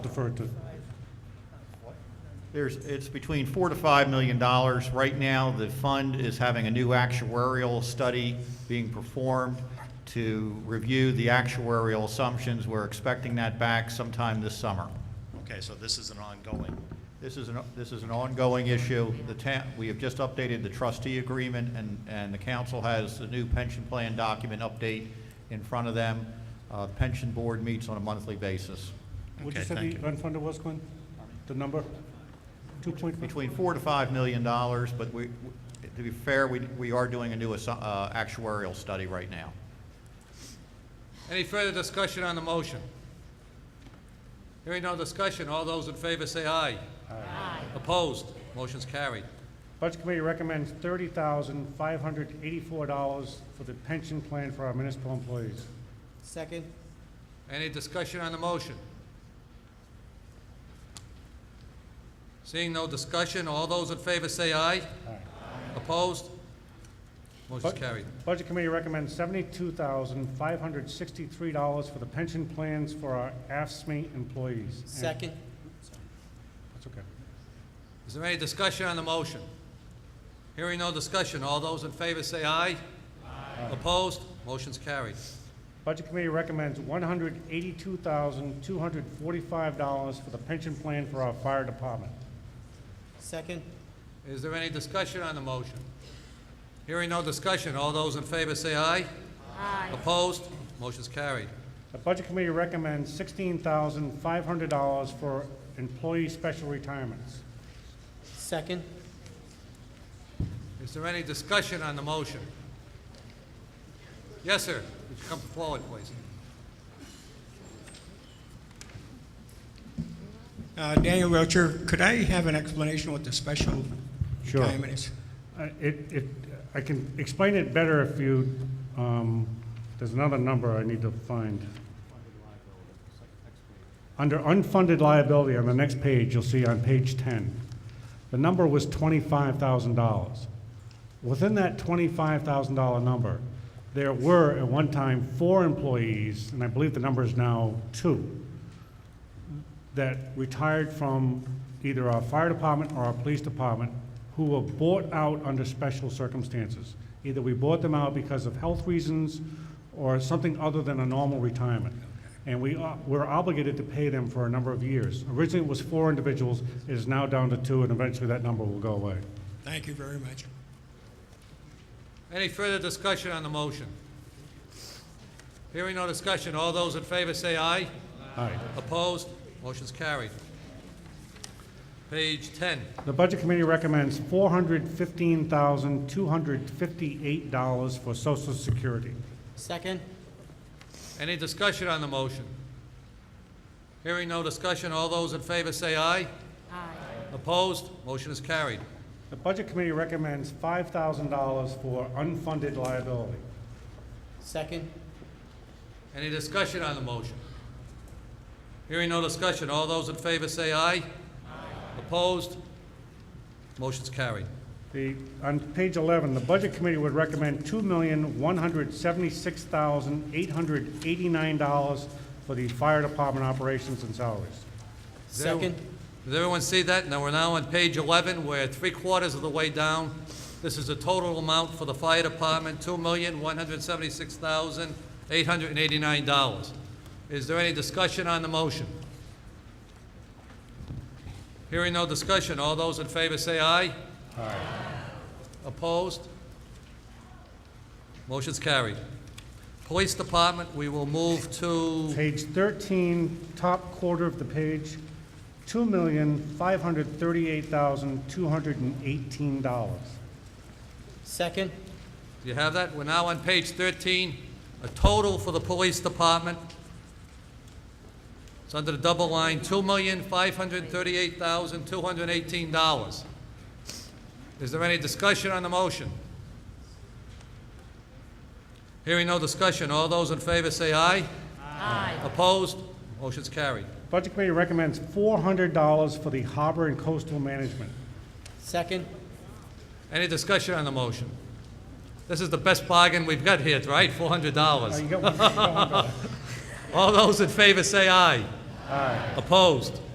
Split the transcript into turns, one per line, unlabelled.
defer to,
There's, it's between four to five million dollars. Right now, the fund is having a new actuarial study being performed to review the actuarial assumptions. We're expecting that back sometime this summer.
Okay, so this is an ongoing.
This is an, this is an ongoing issue. The town, we have just updated the trustee agreement, and, and the council has the new pension plan document update in front of them. Uh, the pension board meets on a monthly basis.
what you
Okay,
said
thank
the unfunded was, Glenn? The number? Two point five?
between four to five million dollars, but we, to be fair, we, we are doing a new assu- uh, actuarial study right now.
Any further discussion on the motion? Hearing no discussion, all those in favor say aye. Aye. Opposed? Motion's carried.
Budget Committee recommends thirty thousand five hundred eighty-four dollars for the pension plan for our municipal employees.
Second,
Any discussion on the motion? Seeing no discussion, all those in favor say aye.
Aye.
Opposed? Motion's
Bu-
carried.
Budget Committee recommends seventy-two thousand five hundred sixty-three dollars for the pension plans for our AFSMI employees. And-
second,
That's okay.
Is there any discussion on the motion? Hearing no discussion, all those in favor say aye. Opposed? Motion's carried.
Budget Committee recommends one hundred eighty-two thousand two hundred forty-five dollars for the pension plan for our fire department.
second,
Is there any discussion on the motion? Hearing no discussion, all those in favor say aye. Aye. Opposed? Motion's carried.
The Budget Committee recommends sixteen thousand five hundred dollars for employee special retirements.
second,
Is there any discussion on the motion? Yes, sir. Would you come forward, please?
Uh, Daniel Rocher, could I have an explanation what the special
Sure.
retirement is?
Uh, It, it, I can explain it better if you, um, there's another number I need to find. Under unfunded liability, on the next page, you'll see on page ten, the number was twenty-five thousand dollars. Within that twenty-five thousand dollar number, there were at one time four employees, and I believe the number is now two, that retired from either our fire department or our police department who were bought out under special circumstances. Either we bought them out because of health reasons or something other than a normal retirement. And we are, we're obligated to pay them for a number of years. Originally, it was four individuals, it is now down to two, and eventually that number will go away.
Thank you very much.
Any further discussion on the motion? Hearing no discussion, all those in favor say aye.
All right.
Opposed? Motion's carried. Page 10.
The Budget Committee recommends four hundred fifteen thousand, two hundred fifty-eight dollars for social security.
second,
Any discussion on the motion? Hearing no discussion, all those in favor say aye. Aye. Opposed? Motion is carried.
The Budget Committee recommends five thousand dollars for unfunded liability.
second,
Any discussion on the motion? Hearing no discussion, all those in favor say aye. Aye. Opposed? Motion's carried.
The, on page eleven, the Budget Committee would recommend two million, one hundred seventy-six thousand, eight hundred eighty-nine dollars for the fire department operations and salaries.
Does everyone-
second,
Does everyone see that? Now, we're now on page 11, we're three-quarters of the way down. This is the total amount for the fire department, $2,176,889. Is there any discussion on the motion? Hearing no discussion, all those in favor say aye. Aye. Opposed? Motion's carried. Police Department, we will move to...
Page thirteen, top quarter of the page, two million, five hundred thirty-eight thousand, two hundred and eighteen dollars.
second,
Do you have that? We're now on page 13, a total for the police department. It's under the double line, $2,538,218. Is there any discussion on the motion? Hearing no discussion, all those in favor say aye. Aye. Opposed? Motion's carried.
Budget Committee recommends four hundred dollars for the harbor and coastal management.
second,
Any discussion on the motion? This is the best bargain we've got here, right?
Now, you
$400.
got one- you got one dollar.
All those in favor say aye. Aye. Opposed?